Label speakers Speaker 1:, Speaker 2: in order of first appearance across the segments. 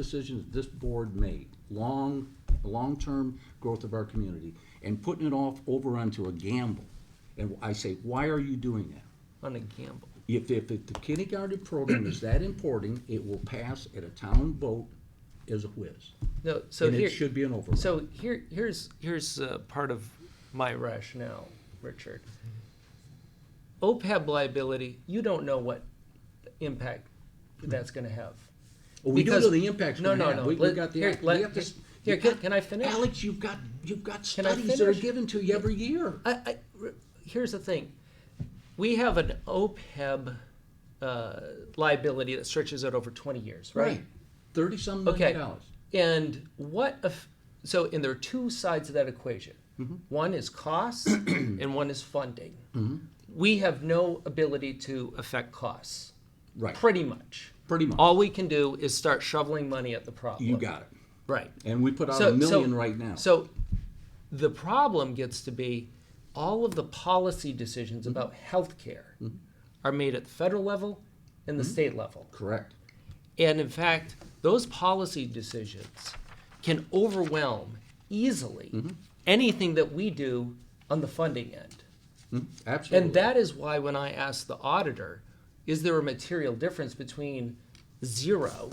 Speaker 1: decisions this board made, long, long-term growth of our community, and putting it off over onto a gamble. And I say, why are you doing that?
Speaker 2: on a gamble.
Speaker 1: If, if the kindergarten program is that important, it will pass at a town vote as a whiz.
Speaker 2: No, so
Speaker 1: And
Speaker 2: here
Speaker 1: it should be an override.
Speaker 2: So here, here's here's uh, part of my rationale, Richard. OPEB liability, you don't know what impact that's going to have.
Speaker 1: Well, We do
Speaker 2: Because-
Speaker 1: know the impacts
Speaker 2: No,
Speaker 1: we're gonna
Speaker 2: no,
Speaker 1: have.
Speaker 2: no.
Speaker 1: We- we
Speaker 2: Let-
Speaker 1: got the-
Speaker 2: here,
Speaker 1: we
Speaker 2: let-
Speaker 1: have to s-
Speaker 2: here,
Speaker 1: you
Speaker 2: can-
Speaker 1: got-
Speaker 2: can I finish?
Speaker 1: Alex, you've got, you've got
Speaker 2: Can I
Speaker 1: studies that are
Speaker 2: finish?
Speaker 1: given to you every year.
Speaker 2: I, I- r- here's the thing. We have an OPEB uh, liability that stretches out over 20 years, right?
Speaker 1: Thirty-some
Speaker 2: Okay.
Speaker 1: million dollars.
Speaker 2: And what if, so, and there are two sides of that equation.
Speaker 1: Mm-hmm.
Speaker 2: One is costs and one is funding.
Speaker 1: Mm-hmm.
Speaker 2: We have no ability to affect costs,
Speaker 1: Right,
Speaker 2: pretty much.
Speaker 1: pretty much.
Speaker 2: All we can do is start shoveling money at the problem.
Speaker 1: You got it.
Speaker 2: Right.
Speaker 1: And we put out a million right now.
Speaker 2: So the problem gets to be all of the policy decisions
Speaker 1: Mm-hmm.
Speaker 2: about healthcare are made at the federal level and
Speaker 1: Mm-hmm.
Speaker 2: the state level.
Speaker 1: Correct.
Speaker 2: And in fact, those policy decisions can overwhelm easily
Speaker 1: Mm-hmm.
Speaker 2: anything that we do on the funding end.
Speaker 1: Mm-hmm. Absolutely.
Speaker 2: And that is why when I asked the auditor, is there a material difference between zero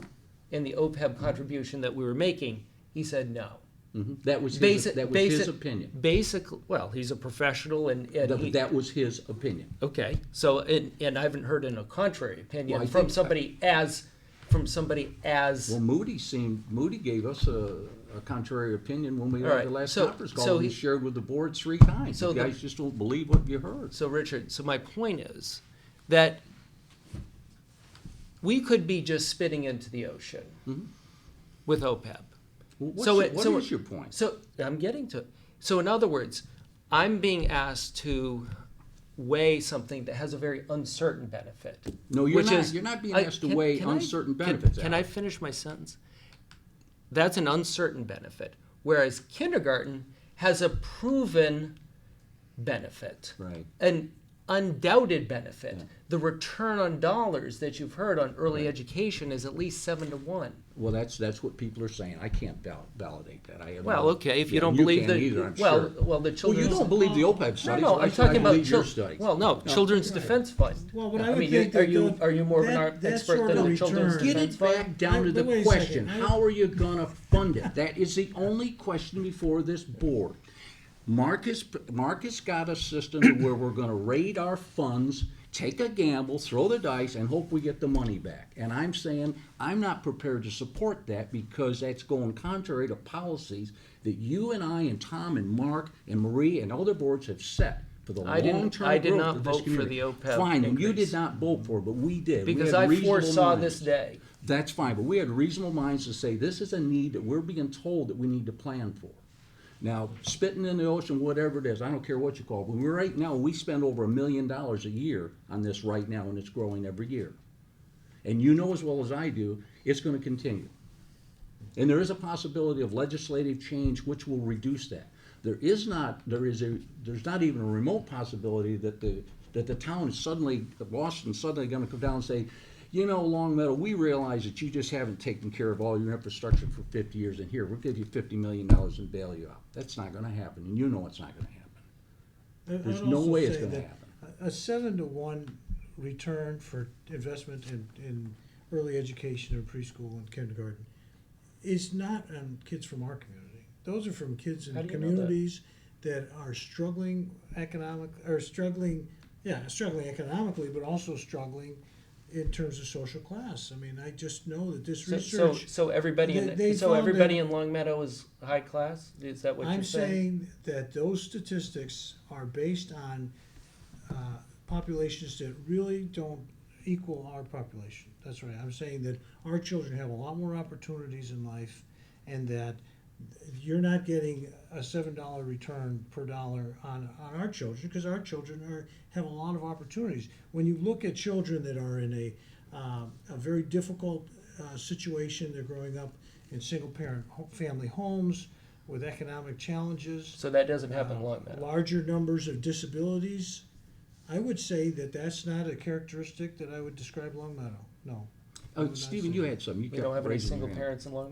Speaker 2: and the OPEB contribution that we were making? He said no.
Speaker 1: Mhm. That was his,
Speaker 2: Basic,
Speaker 1: that was
Speaker 2: basic,
Speaker 1: his opinion.
Speaker 2: Basically, well, he's a professional and, and he-
Speaker 1: That, that was his opinion.
Speaker 2: Okay, so, and, and I haven't heard in a contrary
Speaker 1: Well,
Speaker 2: opinion
Speaker 1: I
Speaker 2: from
Speaker 1: think-
Speaker 2: somebody as, from somebody as.
Speaker 1: Well, Moody seemed, Moody gave us a, a contrary opinion when we
Speaker 2: All
Speaker 1: had
Speaker 2: right,
Speaker 1: the last
Speaker 2: so-
Speaker 1: conference
Speaker 2: so
Speaker 1: call. We
Speaker 2: he-
Speaker 1: shared with the board three times.
Speaker 2: So
Speaker 1: You
Speaker 2: the-
Speaker 1: guys just don't believe what you heard.
Speaker 2: So Richard, so my point is that we could be just spitting into the ocean
Speaker 1: Mm-hmm.
Speaker 2: with OPEB.
Speaker 1: Well, What's,
Speaker 2: So it-
Speaker 1: your- what
Speaker 2: so
Speaker 1: is
Speaker 2: it-
Speaker 1: your point?
Speaker 2: So I'm getting to it. So in other words, I'm being asked to weigh something that has a very uncertain benefit.
Speaker 1: No, you're
Speaker 2: which
Speaker 1: not.
Speaker 2: is-
Speaker 1: You're not being
Speaker 2: I-
Speaker 1: asked to
Speaker 2: can-
Speaker 1: weigh
Speaker 2: can I-
Speaker 1: uncertain
Speaker 2: can-
Speaker 1: benefits,
Speaker 2: Can I finish my sentence? That's an uncertain benefit, whereas kindergarten has a proven benefit
Speaker 1: Right.
Speaker 2: an undoubted benefit. The return on dollars that you've heard on early education is at least seven to one.
Speaker 1: Well, that's, that's what people are saying. I can't val- validate that. I have.
Speaker 2: Well,
Speaker 1: no-
Speaker 2: okay, if you
Speaker 1: Yeah,
Speaker 2: don't
Speaker 1: you
Speaker 2: believe
Speaker 1: can't
Speaker 2: the-
Speaker 1: either, I'm
Speaker 2: well,
Speaker 1: sure.
Speaker 2: well, the
Speaker 1: Well,
Speaker 2: children's-
Speaker 1: you don't believe the OPEB
Speaker 2: No,
Speaker 1: studies.
Speaker 2: no,
Speaker 1: why
Speaker 2: I'm
Speaker 1: should I
Speaker 2: talking about
Speaker 1: believe your
Speaker 2: chil-
Speaker 1: studies?
Speaker 2: well, no, Children's Defense Fund.
Speaker 3: Well, but I
Speaker 2: mean,
Speaker 3: would
Speaker 2: you-
Speaker 3: think
Speaker 2: are
Speaker 3: that
Speaker 2: you
Speaker 3: the-
Speaker 2: are you more of an
Speaker 3: that-
Speaker 2: art
Speaker 3: that
Speaker 2: expert
Speaker 3: sort
Speaker 2: than
Speaker 3: of
Speaker 2: the Children's
Speaker 3: return-
Speaker 1: Get
Speaker 2: Defense
Speaker 1: it
Speaker 2: Fund?
Speaker 1: back down to
Speaker 3: Wait-
Speaker 1: the
Speaker 3: wait a
Speaker 1: question,
Speaker 3: second. I-
Speaker 1: how are you gonna fund it? That is the only question before this board. Marcus, Marcus got a system to where we're gonna raid our funds, take a gamble, throw the dice, and hope we get the money back. And I'm saying, I'm not prepared to support that because that's going contrary to policies that you and I and Tom and Mark and Marie and other boards have set for the
Speaker 2: I didn't-
Speaker 1: long-term
Speaker 2: I
Speaker 1: growth
Speaker 2: did not
Speaker 1: of this
Speaker 2: vote for
Speaker 1: community.
Speaker 2: the OPEB
Speaker 1: Fine, and you
Speaker 2: increase.
Speaker 1: did not vote for it, but we did. We
Speaker 2: Because
Speaker 1: had
Speaker 2: I
Speaker 1: reasonable
Speaker 2: foresaw
Speaker 1: minds.
Speaker 2: this day.
Speaker 1: That's fine, but we had reasonable minds to say, this is a need that we're being told that we need to plan for. Now, spitting in the ocean, whatever it is, I don't care what you call it, but we're right now, we spend over a million dollars a year on this right now, and it's growing every year. And you know as well as I do, it's gonna continue. And there is a possibility of legislative change which will reduce that. There is not, there is a, there's not even a remote possibility that the, that the town is suddenly, that Boston's suddenly gonna come down and say, you know, Long Meadow, we realize that you just haven't taken care of all your infrastructure for fifty years, and here, we'll give you fifty million dollars and bail you out. That's not gonna happen, and you know it's not gonna happen.
Speaker 3: I- I'd
Speaker 1: There's no
Speaker 3: also
Speaker 1: way it's
Speaker 3: say
Speaker 1: gonna
Speaker 3: that a- A seven to one return for investment in, in early education and preschool and kindergarten is not on kids from our community. Those are from kids
Speaker 2: How
Speaker 3: in
Speaker 2: do you know that?
Speaker 3: communities that are struggling economic, are struggling, yeah, struggling economically, but also struggling in terms of social class. I mean, I just know that this
Speaker 2: So, so,
Speaker 3: research.
Speaker 2: so everybody
Speaker 3: They-
Speaker 2: in
Speaker 3: they
Speaker 2: so
Speaker 3: found
Speaker 2: everybody
Speaker 3: that-
Speaker 2: in Long Meadow is high class. Is that what
Speaker 3: I'm
Speaker 2: you're saying?
Speaker 3: saying that those statistics are based on uh, populations that really don't equal our population. That's right. I'm saying that our children have a lot more opportunities in life, and that you're not getting a seven dollar return per dollar on, on our children because our children are have a lot of opportunities. When you look at children that are in a um, a very difficult uh, situation, they're growing up in single parent ho- family homes with economic challenges
Speaker 2: So that doesn't happen in Long Meadow.
Speaker 3: larger numbers of disabilities, I would say that that's not a characteristic that I would describe Long Meadow, no. I
Speaker 1: Uh,
Speaker 3: would not
Speaker 1: Stephen,
Speaker 3: say
Speaker 1: you
Speaker 3: that.
Speaker 1: had some, you
Speaker 2: We don't
Speaker 1: kept
Speaker 2: have any
Speaker 1: raising your
Speaker 2: single
Speaker 1: hand.
Speaker 2: parents in Long